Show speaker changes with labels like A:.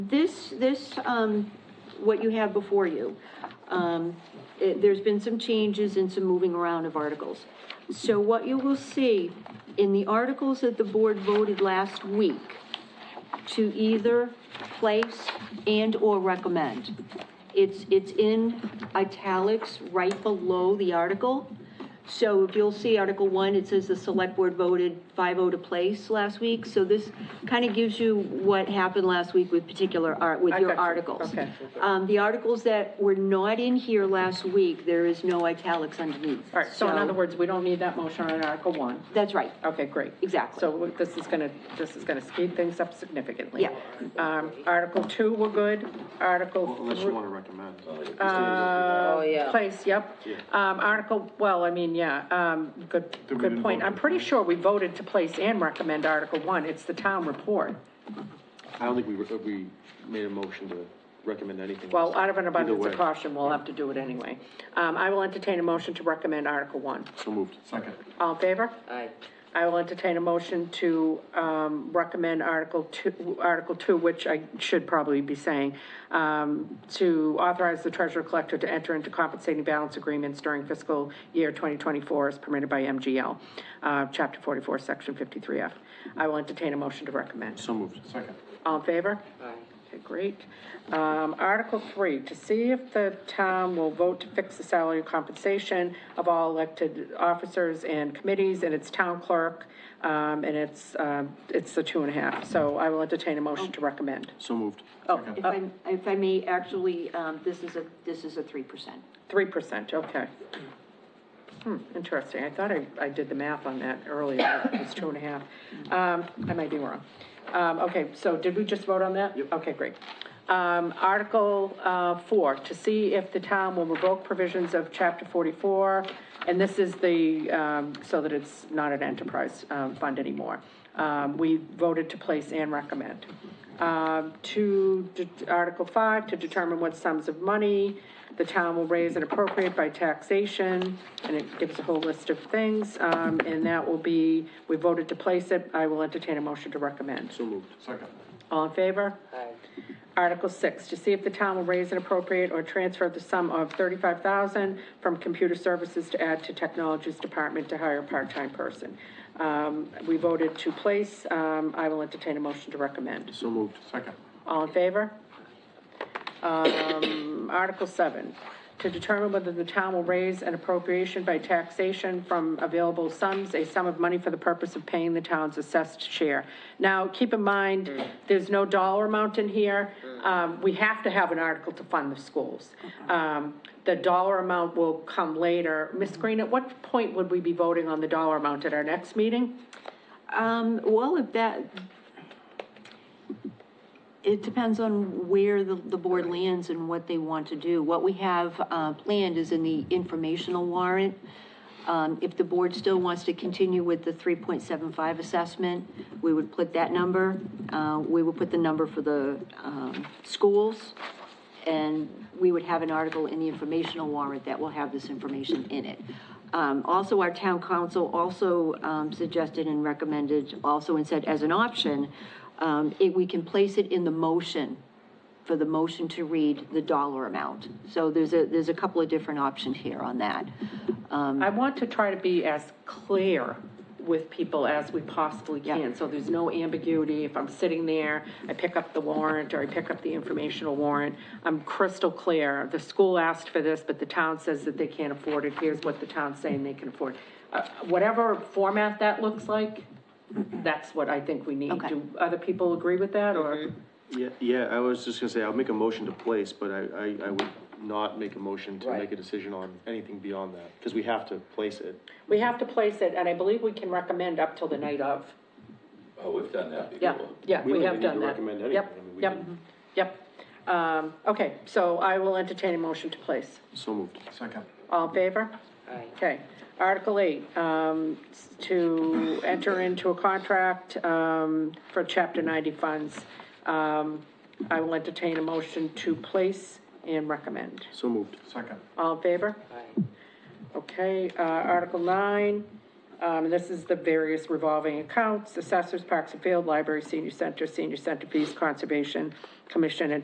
A: This, this, um, what you have before you, um, it, there's been some changes and some moving around of articles. So what you will see in the articles that the board voted last week to either place and/or recommend. It's, it's in italics right below the article. So if you'll see Article 1, it says the select board voted 5-0 to place last week. So this kind of gives you what happened last week with particular art, with
B: I
A: your
B: got you.
A: articles.
B: Okay.
A: Um, the articles that were not in here last week, there is no italics underneath.
B: All right, so in other words, we don't need that motion on Article One.
A: That's right.
B: Okay, great.
A: Exactly.
B: So this is gonna, this is gonna speed things up significantly.
A: Yeah.
B: Um, Article Two, we're good. Article.
C: Unless
B: three-
C: you want to recommend.
B: Uh,
D: Oh, yeah.
B: Place, yep. Um, Article, well, I mean, yeah, um, good,
C: Then we
B: good
C: didn't
B: point.
C: vote
B: I'm
C: on
B: pretty
C: that.
B: sure we voted to place and recommend Article One. It's the town report.
C: I don't think we, re- we made a motion to recommend anything.
B: Well, out of an abundance of
C: way.
B: caution, we'll have to do it anyway. Um, I will entertain a motion to recommend Article One.
C: So moved. Second.
B: All in favor?
D: Aye.
B: I will entertain a motion to, um, recommend Article Two, Article Two, which I should probably be saying, um, to authorize the treasurer collector to enter into compensating balance agreements during fiscal year 2024 as permitted by MGL, uh, Chapter 44, Section 53F. I will entertain a motion to recommend.
C: So moved. Second.
B: All in favor?
D: Aye.
B: Okay, great. Um, Article three, to see if the town will vote to fix the salary and compensation of all elected officers and committees, and it's town clerk, um, and it's, um, it's the two and a half. So I will entertain a motion to recommend.
C: So moved.
B: Oh,
A: If I, if I may, actually, um, this is a, this is a 3%.
B: three percent, okay. Hmm, interesting. I thought I, I did the math on that earlier. It was two and a half. Um, I might be wrong. Um, okay, so did we just vote on that? Okay, great. Um, Article, uh, four, to see if the town will revoke provisions of chapter forty-four, and this is the, um, so that it's not an enterprise, um, fund anymore. Um, we voted to place and recommend. Um, to, de- Article five, to determine what sums of money the town will raise and appropriate by taxation, and it gives a whole list of things, um, and that will be, we voted to place it, I will entertain a motion to recommend.
C: So moved. Second.
B: All in favor?
D: Aye.
B: Article six, to see if the town will raise and appropriate or transfer the sum of thirty-five thousand from computer services to add to technologies department to hire a part-time person. Um, we voted to place, um, I will entertain a motion to recommend.
C: So moved. Second.
B: All in favor? Um, Article seven, to determine whether the town will raise an appropriation by taxation from available sums, a sum of money for the purpose of paying the town's assessed share. Now, keep in mind, there's no dollar amount in here. Um, we have to have an article to fund the schools. Um, the dollar amount will come later. Ms. Green, at what point would we be voting on the dollar amount at our next meeting?
A: Um, well, if that, it depends on where the, the board lands and what they want to do. What we have, uh, planned is in the informational warrant. Um, if the board still wants to continue with the three point seven five assessment, we would put that number. Uh, we would put the number for the, um, schools. And we would have an article in the informational warrant that will have this information in it. Um, also, our town council also, um, suggested and recommended, also and said as an option, um, it, we can place it in the motion, for the motion to read the dollar amount. So there's a, there's a couple of different options here on that.
B: I want to try to be as clear with people as we possibly
A: Yeah.
B: can, so there's no ambiguity. If I'm sitting there, I pick up the warrant, or I pick up the informational warrant, I'm crystal clear. The school asked for this, but the town says that they can't afford it, here's what the town's saying they can afford. Uh, Whatever format that looks like, that's what I think we need.
A: Okay.
B: Do other people agree with that, or?
C: Yeah, yeah, I was just gonna say, I'll make a motion to place, but I, I, I would not make a motion to
D: Right.
C: make a decision on anything beyond that, because we have to place it.
B: We have to place it, and I believe we can recommend up till the night of.
E: Oh, we've done that
B: Yeah,
E: before.
B: yeah,
C: We
B: we
C: don't
B: have
C: even need
B: done
C: to
B: that.
C: recommend anything. I mean, we
B: Yep,
C: can-
B: yep, yep. Um, okay, so I will entertain a motion to place.
C: So moved. Second.
B: All in favor?
D: Aye.
B: Okay. Article eight, um, s- to enter into a contract, um, for chapter ninety funds. Um, I will entertain a motion to place and recommend.
C: So moved. Second.
B: All in favor?
D: Aye.
B: Okay, uh, Article nine, Um, and this is the various revolving accounts, assessors, parks and field, library, senior center, senior center fees, conservation commission, and